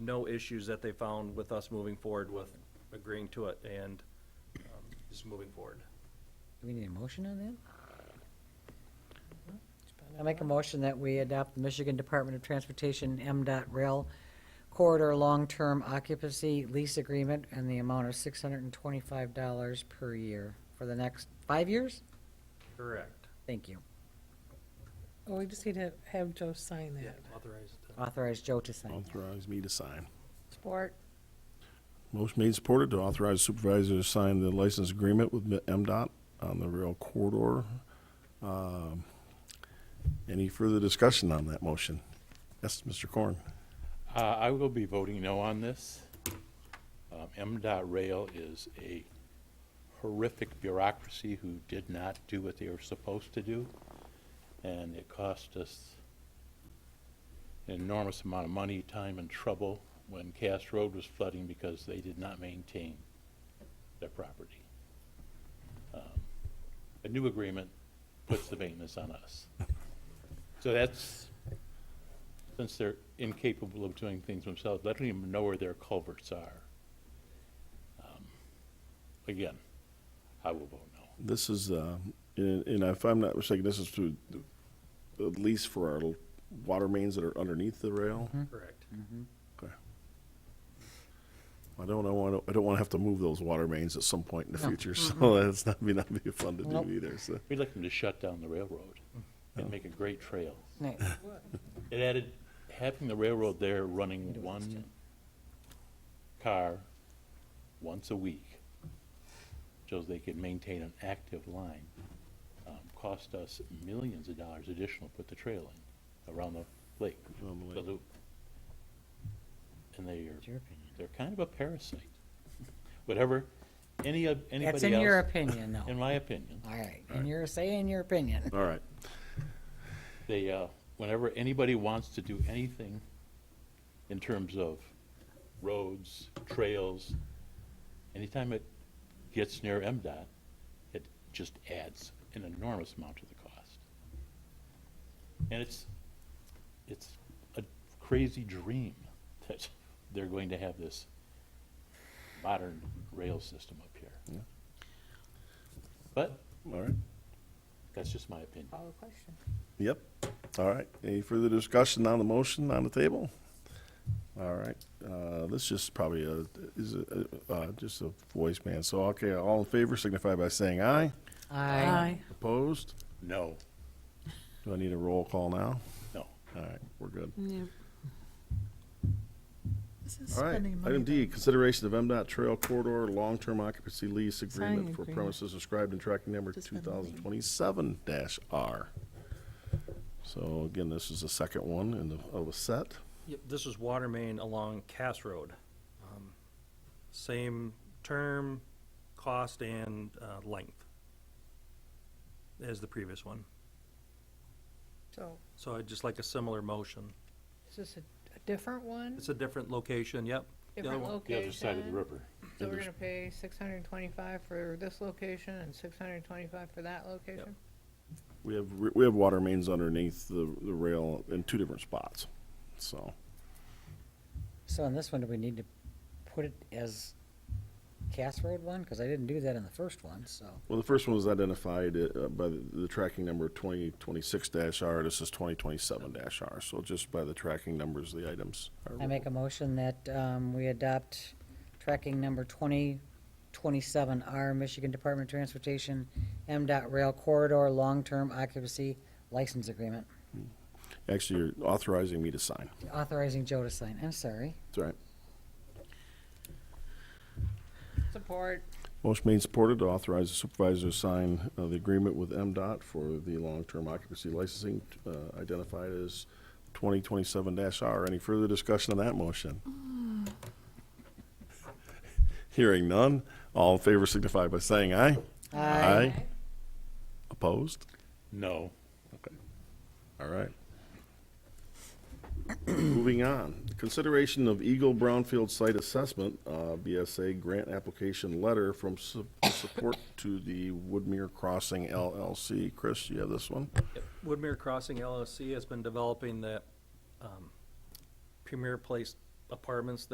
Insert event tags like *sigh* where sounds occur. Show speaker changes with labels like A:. A: no issues that they found with us moving forward with agreeing to it and um, just moving forward.
B: Do we need a motion on that? I make a motion that we adopt the Michigan Department of Transportation MDOT Rail Corridor Long-Term Occupancy Lease Agreement and the amount of six hundred and twenty-five dollars per year for the next five years?
A: Correct.
B: Thank you.
C: Well, we just need to have Joe sign that.
A: Authorized.
B: Authorize Joe to sign.
D: Authorize me to sign.
C: Support.
D: Motion made and supported to authorize supervisor to sign the license agreement with MDOT on the rail corridor. Um, Any further discussion on that motion? Yes, Mr. Korn.
E: Uh, I will be voting no on this. Um, MDOT Rail is a horrific bureaucracy who did not do what they were supposed to do, and it cost us an enormous amount of money, time, and trouble when Cass Road was flooding because they did not maintain their property. Um, A new agreement puts the maintenance on us. So that's since they're incapable of doing things themselves, letting them know where their culverts are. Um, Again, I will vote no.
D: This is, uh, and and if I'm not mistaken, this is to, at least for our water mains that are underneath the rail.
A: Correct.
D: Okay. I don't, I want to, I don't want to have to move those water mains at some point in the future, *laughs* so that's not, may not be fun to
B: Nope.
D: do either, so.
E: We'd like them to shut down the railroad and make a great trail.
B: Nice.
E: It added, having the railroad there running one car once a week, so they could maintain an active line, um, cost us millions of dollars additional to put the trail in around the lake,
D: Around the lake.
E: the loop. And they are
B: That's your opinion.
E: They're kind of a parasite. *laughs* Whatever any of anybody else.
B: That's in your opinion,
E: *laughs*
B: though.
E: in my opinion,
B: All right, and you're saying your opinion.
D: All right.
E: they uh, whenever anybody wants to do anything in terms of roads, trails, anytime it gets near MDOT, it just adds an enormous amount to the cost. And it's it's a crazy dream *laughs* that they're going to have this modern rail system up here. But
D: All right.
E: that's just my opinion.
C: Follow question.
D: Yep. All right. Any further discussion on the motion on the table? All right. Uh, this just probably a, is a, uh, just a voice man. So, okay, all in favor signify by saying aye.
B: Aye.
D: Opposed?
E: No,
D: Do I need a roll call now?
E: no.
D: All right, we're good.
C: Yeah.
D: All right. Item D, consideration of MDOT Trail Corridor Long-Term Occupancy Lease Agreement
C: Signing
D: for
C: agreement.
D: premises described in tracking number
C: Just
D: two
C: spend the money.
D: thousand twenty-seven R. So again, this is the second one in the, of a set.
A: Yep, this is water main along Cass Road. Um, Same term, cost and uh, length as the previous one.
C: So,
A: So I'd just like a similar motion.
C: is this a a different one?
A: It's a different location, yep. The other
C: Different
A: one-
E: The
C: location?
E: other side of the river.
C: So we're gonna pay six hundred and twenty-five for this location and six hundred and twenty-five for that location?
D: We have, re- we have water mains underneath the, the rail in two different spots, so.
B: So on this one, do we need to put it as Cass Road one? Because I didn't do that in the first one, so.
D: Well, the first one was identified uh, by the, the tracking number twenty twenty-six dash R, this is twenty twenty-seven dash R, so just by the tracking numbers, the items are.
B: I make a motion that um, we adopt tracking number 2027R, Michigan Department of Transportation, MDOT Rail Corridor Long-Term Occupancy License Agreement,
D: Actually, you're authorizing me to sign,
B: authorizing Joe to sign. I'm sorry.
D: that's all right.
C: Support.
D: Motion made and supported to authorize the supervisor to sign uh, the agreement with MDOT for the long-term occupancy licensing uh, identified as 2027-R. Any further discussion on that motion? Hearing none, all in favor signify by saying aye. Opposed?
E: No.
D: All right. Moving on, consideration of Eagle Brownfield Site Assessment, uh, BSA Grant Application Letter from su- Support to the Woodmere Crossing LLC. Chris, you have this one?
A: Yep. Woodmere Crossing LLC has been developing that um, Premier Place apartments